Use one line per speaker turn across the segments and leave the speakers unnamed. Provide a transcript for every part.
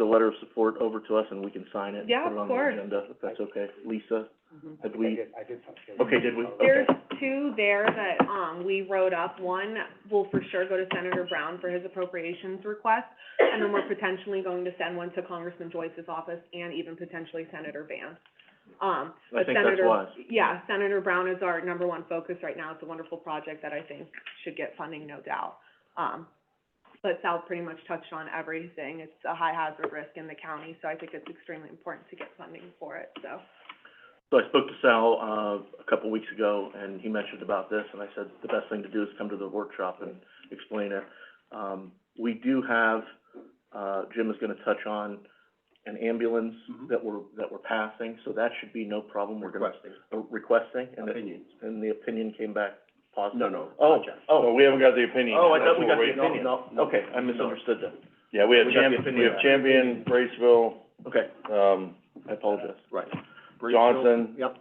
the letter of support over to us and we can sign it? and
Yeah,
put it
of
on the
course.
agenda, if that's okay. Lisa, had
I
we,
did, I did something.
okay, did we? Okay.
There's two there that, um, we wrote up. One will for sure go to Senator Brown for his appropriations request, and then we're potentially going to send one to Congressman Joyce's office and even potentially Senator Vance. Um,
I
but
think that's
Senator-
wise.
Yeah, Senator Brown is our number one focus right now. It's a wonderful project that I think should get funding, no doubt. Um, but Sal pretty much touched on everything. It's a high hazard risk in the county, so I think it's extremely important to get funding for it, so.
So I spoke to Sal, uh, a couple weeks ago, and he mentioned about this, and I said, the best thing to do is come to the workshop and explain it. Um, we do have, uh, Jim is gonna touch on an ambulance
Mhm.
that we're, that we're passing, so that should be no problem. We're gonna,
Requesting
uh, requesting, and the,
opinions.
and the opinion came back positive.
No, no,
Oh,
project.
oh,
we haven't got the opinion.
oh, I
That's
thought we
what
got
we're
the
waiting
opinion.
on.
No, okay, I misunderstood then.
Yeah, we have
We got the
Champion, we
opinion.
have Champion, Braceville,
Okay,
um,
I apologize.
Right.
Johnson.
Yep,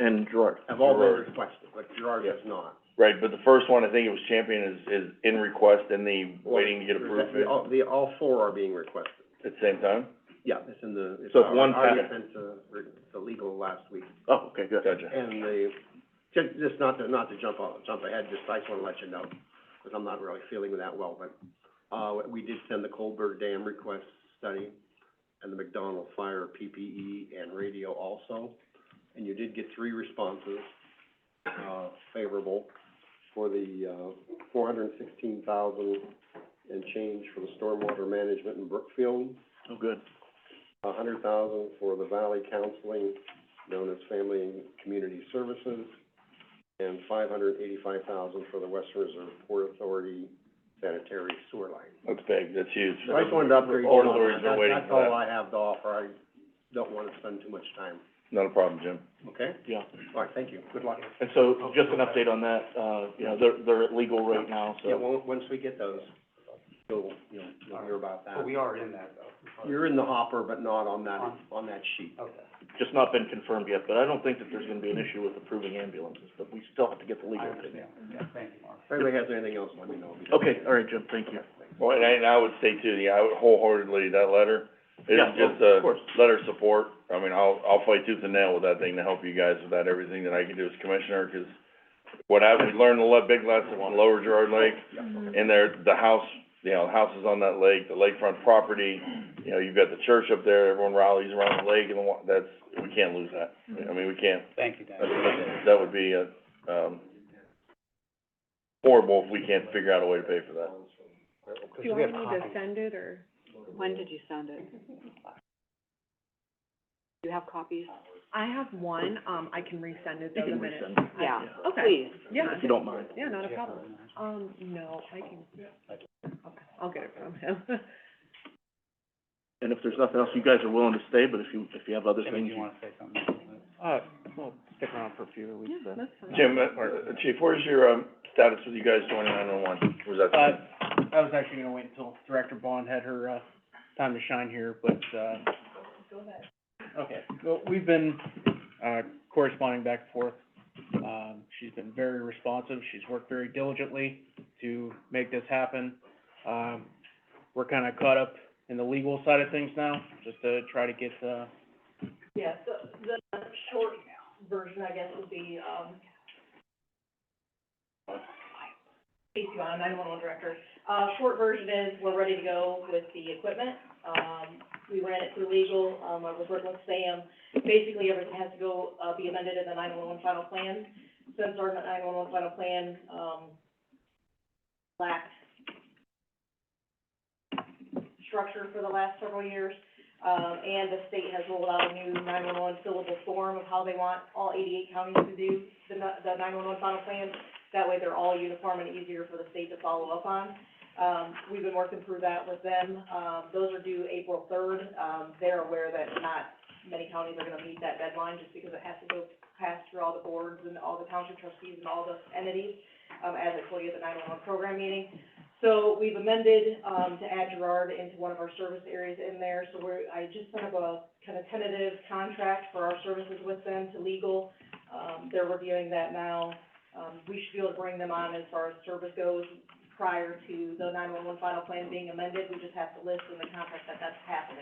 And Gerard.
have all
Gerard.
been requested, but Gerard has not.
right, but the first one, I think it was Champion is, is in request and the waiting to get approved
The, all, the, all four are being requested.
at the same time?
Yeah, it's in the, it's
So if
our,
one
our
pass-
sent to, re- to legal last week.
Oh, okay, good.
Gotcha.
And the, ju- just not to, not to jump off, jump ahead, just I just wanna let you know, because I'm not really feeling that well, but, uh, we did send the Colberg Dam request study and the McDonald Fire PPE and radio also, and you did get three responses, uh, favorable for the, uh, four hundred and sixteen thousand and change for the stormwater management in Brookfield,
Oh, good.
a hundred thousand for the Valley Counseling, known as Family and Community Services, and five hundred eighty-five thousand for the Western Reserve Port Authority sanitary sewer line.
That's big, that's huge.
So I just wanted to update you
Port
on
Authority's
that,
been waiting
That- that's
for
all
that.
I have to offer, I don't wanna spend too much time,
Not a problem, Jim.
okay?
Yeah.
All right, thank you, good luck.
And so, just an update on that, uh, you know, they're, they're at legal right now,
Yeah,
so,
well, once we get those, you'll, you'll, you'll hear about that.
So we are in that though.
You're in the hopper, but not on that,
On-
on that sheet.
Okay.
just not been confirmed yet, but I don't think that there's gonna be an issue with approving ambulances, but we still have to get the
I
legal opinion.
understand. Yeah, thank you, Mark.
If anybody has anything else, let me know.
Okay, all right, Jim, thank you.
Well, and I, and I would say too, yeah, I would wholeheartedly, that letter, is
Yeah,
just
well,
a
of course.
letter of support. I mean, I'll, I'll fight tooth and nail with that thing to help you guys with that, everything that I can do as commissioner, 'cause what I, we learned a lot, big lesson on Lower Gerard Lake, And there, the house, you know, the houses on that lake, the lakefront property, you know, you've got the church up there, everyone rallies around the lake and the wa- that's, we can't lose that. I mean, we can't,
Thank you,
that's-
Dan.
that's- that would be, uh, um, horrible if we can't figure out a way to pay for that.
Do I need to send it, or?
When did you send it? Do you have copies?
I have one, um, I can resend it
You
though the
can
minute.
resend it,
Yeah,
Okay.
please.
Yeah,
if you don't mind.
yeah, not a problem. Um, no, I can, okay, I'll get it from him.
And if there's nothing else, you guys are willing to stay, but if you, if you have other
Jimmy, do
things,
you wanna say something?
Uh, well, stick around for a few weeks
Yeah,
then.
that's fine.
Jim, uh, uh, chief, where's your, um, status with you guys joining nine one one? Was that?
Uh, I was actually gonna wait until Director Bond had her, uh, time to shine here, but, uh. Okay, well, we've been, uh, corresponding back and forth. Um, she's been very responsive, she's worked very diligently to make this happen. Um, we're kinda caught up in the legal side of things now, just to try to get, uh,
Yeah, so the short version, I guess, would be, um, Casey Vaughn, nine-one-one director. Uh, short version is, we're ready to go with the equipment. Um, we ran it through legal, um, I was working with Sam. Basically, everything has to go, uh, be amended in the nine-one-one final plan. Since our nine-one-one final plan, um, lacked structure for the last several years, um, and the state has rolled out a new nine-one-one syllable form of how they want all eighty-eight counties to do the, n- the nine-one-one final plans. That way they're all uniform and easier for the state to follow up on. Um, we've been working through that with them. Um, those are due April third. Um, they're aware that not many counties are gonna meet that deadline just because it has to go past through all the boards and all the township trustees and all the entities, um, as I told you at the nine-one-one program meeting. So we've amended, um, to add Gerard into one of our service areas in there, so we're, I just sent up a kind of tentative contract for our services with them to legal. Um, they're reviewing that now. Um, we should be able to bring them on as far as service goes prior to the nine-one-one final plan being amended, we just have to list in the contract that that's happening.